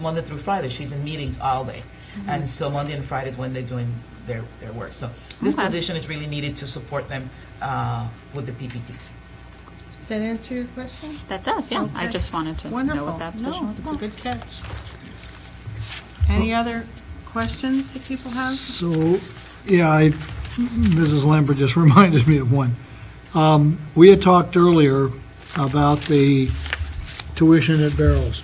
Monday through Friday, she's in meetings all day. And so Monday and Friday is when they're doing their, their work. So this Okay. position is really needed to support them uh, with the PPTs. Does that answer your question? That does, yeah. I Okay. just wanted to know Wonderful. what that position No, was it's a about. good catch. Any other questions that people have? So, yeah, I, Mrs. Lambert just reminded me of one. Um, We had talked earlier about the tuition at Barrows.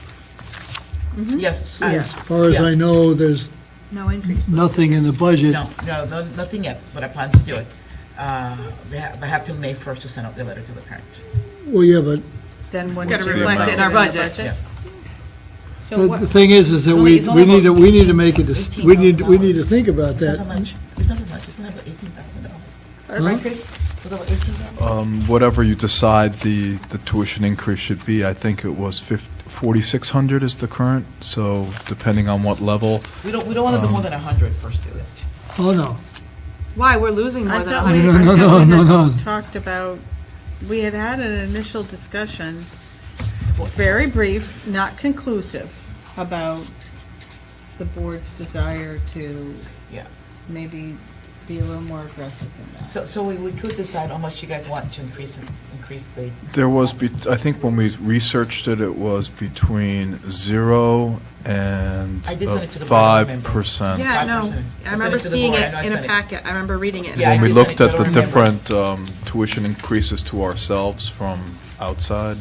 Mm-hmm. Yes. uh, and- As far as I know, there's No increase. nothing in the budget. No, no, no, nothing yet, but I plan to do it. Uh, They ha- they have till May 1st to send out the letter to the parents. Well, yeah, but Then when Gotta it's reflect it in our reflected budget. Yeah. So the- the what, thing is, is that It's only- we, it's we only need to, about we need to make a, dis- we need, we need to $18,000. think about It's not that that. much, it's not that much, it's not about $18,000. Right, Chris? It's about $18,000? Um, Whatever you decide the, the tuition increase should be, I think it was fif- 4,600 is the current, so depending on what level. We don't, we don't want Um, to do more than 100 per student. Oh, no. Why, we're losing I thought we, No, no, I no, thought we no, no, had no. talked about, we had had an initial discussion, very brief, not conclusive, about the board's desire to Yeah. maybe be a little more aggressive than that. So, so we, we could decide how much you guys want to increase, it- increase the, There was, be- I think when we researched it, it was between zero and I did send it to the board, I remember. 5%. Um, Yeah, Yeah, I know. no, 5%. I I remember sent it to the seeing board. it I know I in sent a it. packet. I remember reading it. Yeah, I When we did send it looked to at the the board, I remember. different um, tuition increases to ourselves from outside,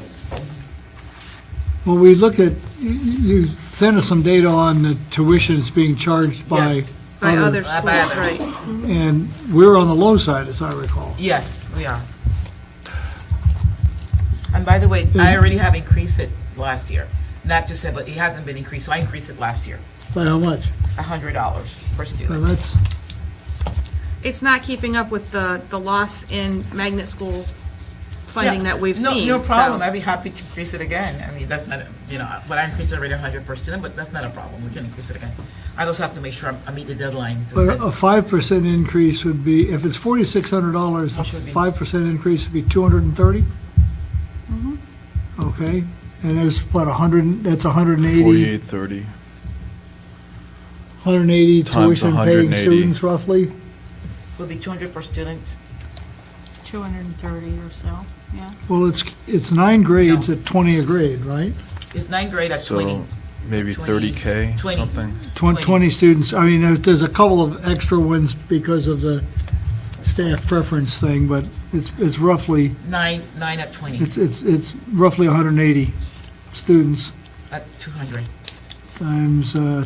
Well, we looked at, you- you sent us some data on the tuition that's being charged by Yes, By other other, By schools, others. right. and we're on the low side, as I recall. yes, we are. And by the way, Mm-hmm. I already have increased it last year. Not just said, but it hasn't been increased, so I increased it last year, By how much? $100 per Well, student. that's, It's not keeping up with the, the loss in magnet school funding Yeah. that we've No- seen. No so- problem, I'd be happy to increase it again. I mean, that's not, you know, but I increased it already 100 per student, but that's not a problem, we can increase it again. I also have to make sure I'm- I meet the deadline to But send. a five percent increase would be, if it's forty-six hundred dollars, a That should be- five percent increase would be two hundred and thirty? Mm-hmm. Okay, and there's what, a hundred, and- that's a hundred and eighty, 4830. hundred and eighty Times tuition-paying 180. students roughly? Will be 200 per student, 230 or so, yeah. Well, it's, it's nine grades at twenty a grade, right? it's ninth grade at 20. So maybe 20, 30K, 20. something. Twen- Twenty. Twenty students, I mean, there's, there's a couple of extra ones because of the staff preference thing, but it's, it's roughly, Nine, nine at 20, it's, it's, it's roughly hundred and eighty students at 200. times uh,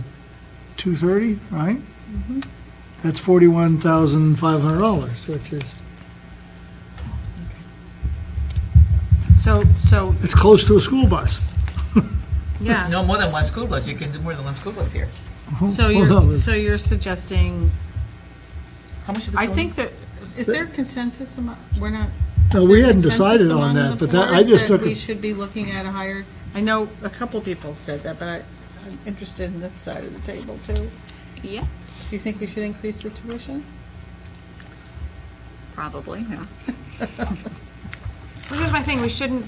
230, right? Mm-hmm. That's $41,500, which is, So, so, it's close to a school bus. yeah. No more than one school bus, you can do more than one school bus here. So Well, you're, it's- so you're suggesting, How much is the I total? think that, is there consensus among, we're not. No, is we there hadn't consensus decided on among that, the but that- I board just took That we it- should be looking at a higher, I know a couple people have said that, but I- I'm interested in this side of the table too. Do Yeah, you think we should increase the tuition? probably, yeah. Well, here's my thing, we shouldn't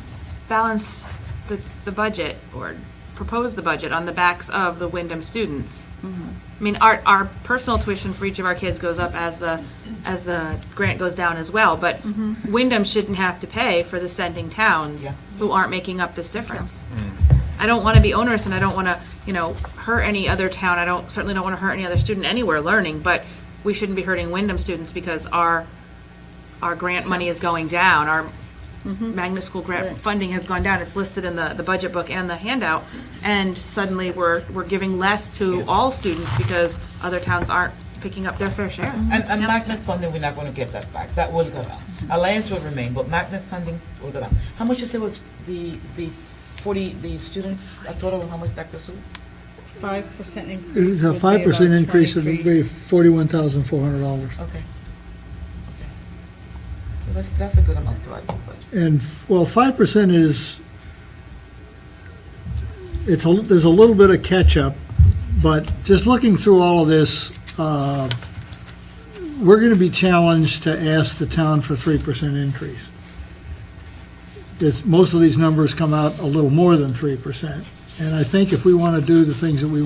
balance the, the budget or propose the budget on the backs of the Wyndham students. I mean, our, our personal tuition for each of our kids goes up as the, as the grant goes down as well, but Wyndham shouldn't have to pay for the sending towns Yeah. who aren't making up this difference. I don't want to be onerous and I don't want to, you know, hurt any other town. I don't, certainly don't want to hurt any other student anywhere learning, but we shouldn't be hurting Wyndham students because our, our grant money is going down. Our magnet school grant funding has gone down. It's listed in the, the budget book and the handout. And suddenly we're, we're giving less to all students because other towns aren't picking up their fair share. And, and magnet funding, we're not gonna get that back, that will go down. Mm-hmm. Alliance will remain, but magnet funding will go down. How much you say was the, the forty, the students, a total of how much, Dr. Sue? Five percent increase. It's a would be 5% about increase would 23. be $41,400. Okay. Okay. Well, That's, that's a good amount to add to the budget. And, well, 5% is, it's, a there's a little bit of catch-up, but just looking through all of this, uh, we're going to be challenged to ask the town for 3% increase. Because most of these numbers come out a little more than 3%. And I think if we want to do the things that we